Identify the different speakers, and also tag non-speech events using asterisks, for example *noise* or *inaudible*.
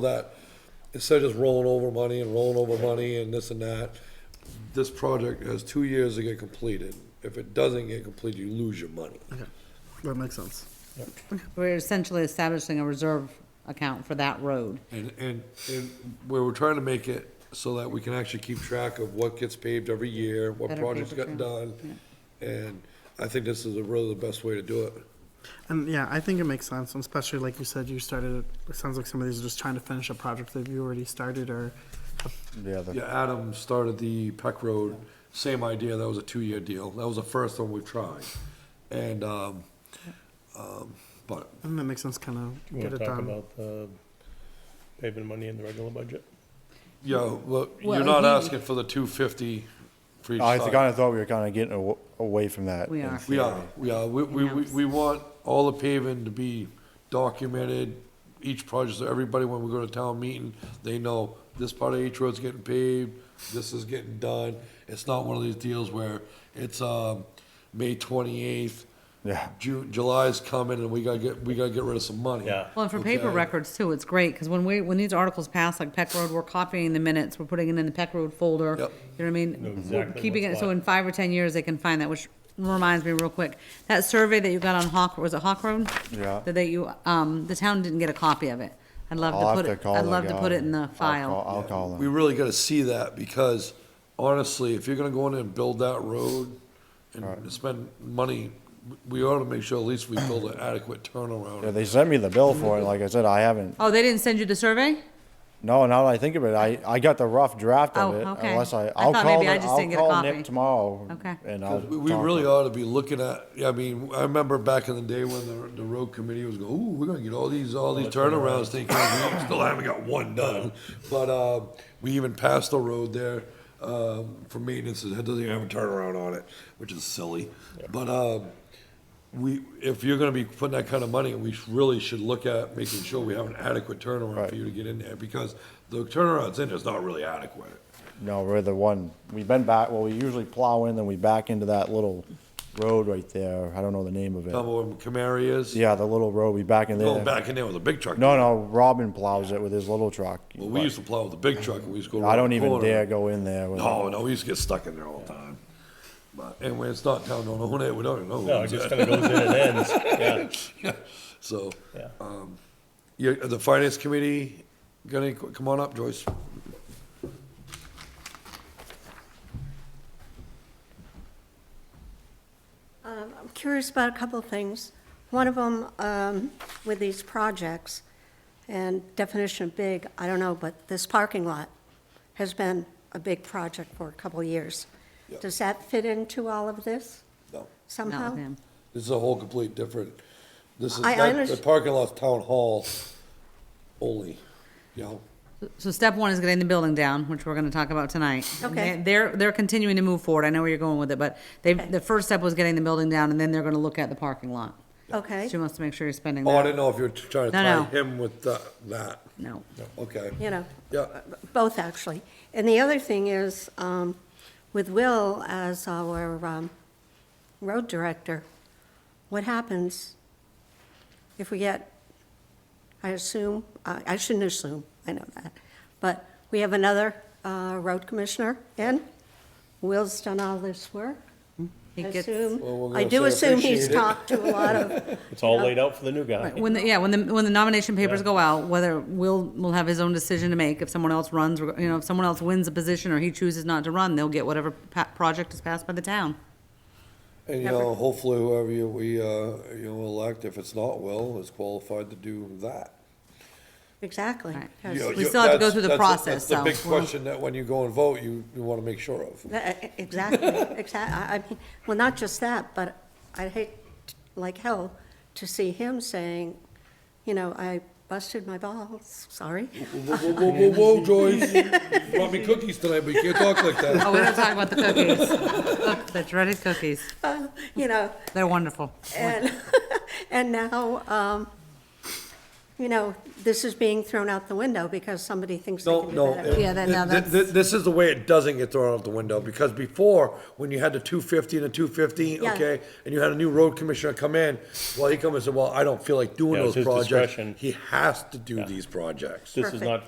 Speaker 1: that, instead of just rolling over money and rolling over money and this and that, this project has two years to get completed. If it doesn't get completed, you lose your money.
Speaker 2: That makes sense.
Speaker 3: We're essentially establishing a reserve account for that road.
Speaker 1: And, and, and where we're trying to make it so that we can actually keep track of what gets paved every year, what
Speaker 3: Better
Speaker 1: projects
Speaker 3: paper
Speaker 1: got
Speaker 3: trail,
Speaker 1: done. And I think this is really the best way to do it.
Speaker 2: And yeah, I think it makes sense, and especially like you said, you started, it sounds like some of these are just trying to finish a project that you already started or,
Speaker 4: Yeah, the,
Speaker 1: Yeah, Adam started the Peck Road, same idea, that was a two-year deal, that was the first one we've tried. And, um, um, but,
Speaker 2: and that makes sense kind of
Speaker 5: Want
Speaker 2: get
Speaker 5: to
Speaker 2: it
Speaker 5: talk
Speaker 2: done.
Speaker 5: about the paving money in the regular budget?
Speaker 1: yeah, look, you're
Speaker 3: Well,
Speaker 1: not
Speaker 3: he-
Speaker 1: asking for the two fifty for each
Speaker 4: I kind
Speaker 1: side.
Speaker 4: of thought we were kind of getting aw- away from that.
Speaker 3: We
Speaker 4: in
Speaker 3: are.
Speaker 1: We
Speaker 4: theory.
Speaker 1: are, we are, we, we, we- we want all the paving to be documented, each project, so everybody, when we go to town meeting, they know this part of H Road's getting paved, this is getting done, it's not one of these deals where it's, um, May twenty-eighth,
Speaker 4: Yeah.
Speaker 1: June, July's coming and we gotta get, we gotta get rid of some money.
Speaker 5: Yeah.
Speaker 3: Well, and for paper
Speaker 1: Okay.
Speaker 3: records too, it's great, because when we, when these articles pass, like Peck Road, we're copying the minutes, we're putting it in the Peck Road folder.
Speaker 1: Yep.
Speaker 3: You know what I mean?
Speaker 5: Know
Speaker 3: We're
Speaker 5: exactly
Speaker 3: Keeping
Speaker 5: what's
Speaker 3: it, so
Speaker 5: what.
Speaker 3: in five or ten years, they can find that, which reminds me real quick, that survey that you got on Hawk, was it Hawk Road?
Speaker 4: Yeah.
Speaker 3: That they, you, um, the town didn't get a copy of it. I'd love
Speaker 4: I'll
Speaker 3: to
Speaker 4: have
Speaker 3: put
Speaker 4: to
Speaker 3: it,
Speaker 4: call
Speaker 3: I'd
Speaker 4: the
Speaker 3: love to put
Speaker 4: guy.
Speaker 3: it in the
Speaker 4: I'll call-
Speaker 3: file.
Speaker 4: I'll call
Speaker 1: We
Speaker 4: him.
Speaker 1: really gotta see that because honestly, if you're gonna go in and build that road and spend money, we ought to make sure at least we build an adequate
Speaker 4: Yeah,
Speaker 1: turnaround.
Speaker 4: they sent me the bill for it. Like I said, I haven't.
Speaker 3: Oh, they didn't send you the survey?
Speaker 4: No, now that I think of it, I, I got the rough draft of
Speaker 3: Oh,
Speaker 4: it.
Speaker 3: okay.
Speaker 4: Unless I,
Speaker 3: I
Speaker 4: I'll
Speaker 3: thought
Speaker 4: call.
Speaker 3: maybe I
Speaker 4: the-
Speaker 3: just
Speaker 4: I'll
Speaker 3: didn't get a
Speaker 4: call
Speaker 3: copy.
Speaker 4: Nick tomorrow.
Speaker 3: Okay.
Speaker 4: And I'll.
Speaker 1: We we
Speaker 4: talk to
Speaker 1: really
Speaker 4: him.
Speaker 1: ought to be looking at, I mean, I remember back in the day when the, the road committee was going, ooh, we're gonna get all these, all these turnarounds taken. care of." We Still haven't got one done, but, uh, we even passed the road there, um, for maintenance, it doesn't even have a turnaround on it, which is silly. But, um, we, if you're gonna be putting that kind of money, we sh- really should look at making sure we have an adequate turnaround
Speaker 4: Right.
Speaker 1: for you to get in there, because the turnaround's in there's not really adequate.
Speaker 4: No, we're the one. We've been back. Well, we usually plow in, then we back into that little road right there. I don't know the name of it.
Speaker 1: Number one, Camaro is,
Speaker 4: Yeah, the little road. We back in there.
Speaker 1: going back in there with a big truck.
Speaker 4: No, no. Robin plows it with his little truck.
Speaker 1: Well, we used to plow with the big truck, and we used to go.
Speaker 4: I
Speaker 1: around
Speaker 4: don't
Speaker 1: the
Speaker 4: even
Speaker 1: corner.
Speaker 4: dare go in there. With
Speaker 1: No, no, we used to get stuck in there all the time. But, and when it's not town, don't own it, we don't even know. who
Speaker 5: No, it
Speaker 1: owns
Speaker 5: just
Speaker 1: it.
Speaker 5: kind
Speaker 1: *laughs*
Speaker 5: of goes in and ends, yeah,
Speaker 1: Yeah, So, um,
Speaker 5: yeah.
Speaker 1: you, the finance committee, got any, come on up, Joyce.
Speaker 6: Um, I'm curious about a couple of things. One of them, um, with these projects, and definition of big, I don't know, but this parking lot has been a big project for a couple of years.
Speaker 1: Yeah.
Speaker 6: Does that fit into all of this
Speaker 1: No,
Speaker 3: Not
Speaker 6: somehow?
Speaker 3: with him.
Speaker 1: This is a whole complete different, this is,
Speaker 6: I- I
Speaker 1: that- the
Speaker 6: underst-
Speaker 1: parking lot's town hall only, you know?
Speaker 3: So step one is getting the building down, which we're gonna talk about tonight. And
Speaker 6: Okay.
Speaker 3: they- They're, they're continuing to move forward, I know where you're going with it, but they,
Speaker 6: Okay.
Speaker 3: the first step was getting the building down, and then they're gonna look at the parking lot.
Speaker 6: Okay,
Speaker 3: She wants to make sure you're spending
Speaker 1: Oh, I
Speaker 3: that,
Speaker 1: didn't know if you were trying to
Speaker 3: No,
Speaker 1: tie
Speaker 3: no.
Speaker 1: him with that, that,
Speaker 3: no.
Speaker 1: okay,
Speaker 6: you know,
Speaker 1: yeah.
Speaker 6: both actually. And the other thing is, um, with Will as our um, road director, what happens if we get, I assume, I I shouldn't assume, I know that, but we have another uh, road commissioner in. Will's done all this work.
Speaker 3: He
Speaker 6: I
Speaker 3: gets-
Speaker 6: assume-
Speaker 1: Well, we're
Speaker 6: I
Speaker 1: gonna
Speaker 6: do
Speaker 1: say
Speaker 6: assume he's
Speaker 1: appreciate it.
Speaker 6: talked to a lot of
Speaker 1: *laughs*
Speaker 5: It's all laid out for the new guy.
Speaker 3: Right, When, the- yeah, when the, when the nomination papers go out, whether Will will have his own decision to make, if someone else runs, you know, if someone else wins a position or he chooses not to run, they'll get whatever pa- project is passed by the town.
Speaker 1: And, you know, hopefully whoever you, we, uh, you know, elect, if it's not Will, is qualified to do that.
Speaker 6: Exactly.
Speaker 3: Right.
Speaker 6: Yes.
Speaker 1: You know,
Speaker 3: We
Speaker 1: you-
Speaker 3: still have to go
Speaker 1: that's-
Speaker 3: through the
Speaker 1: that's- That's
Speaker 3: process, so-
Speaker 1: the big question that when you go and vote, you, you wanna make sure of.
Speaker 6: That- e- Exactly, *laughs* exactly. I mean, well, not just that, but I hate like hell to see him saying, you know, I busted my balls, sorry. *laughs*
Speaker 1: Whoa, whoa, whoa, whoa, whoa, Joyce, you brought me cookies tonight, but you can't talk like that.
Speaker 3: Oh, we're gonna talk about the
Speaker 6: *laughs*
Speaker 3: cookies. Look, The dreaded cookies,
Speaker 6: Uh, You know, *laughs*
Speaker 3: they're wonderful.
Speaker 6: and, and now, um, you know, this is being thrown out the window because somebody thinks they
Speaker 1: No,
Speaker 6: can do
Speaker 1: no. uh,
Speaker 6: better.
Speaker 1: it-
Speaker 3: Yeah, then now
Speaker 1: th- th-
Speaker 3: that's-
Speaker 1: This is the way it doesn't get thrown out the window, because before, when you had the two fifty and the two fifty,
Speaker 6: Yeah.
Speaker 1: okay, and you had a new road commissioner come in, well, he come and said, well, I don't feel like doing
Speaker 5: Yeah,
Speaker 1: those
Speaker 5: it's his
Speaker 1: projects.
Speaker 5: discretion.
Speaker 1: He has to do these projects.
Speaker 5: This is
Speaker 6: Perfect.
Speaker 5: not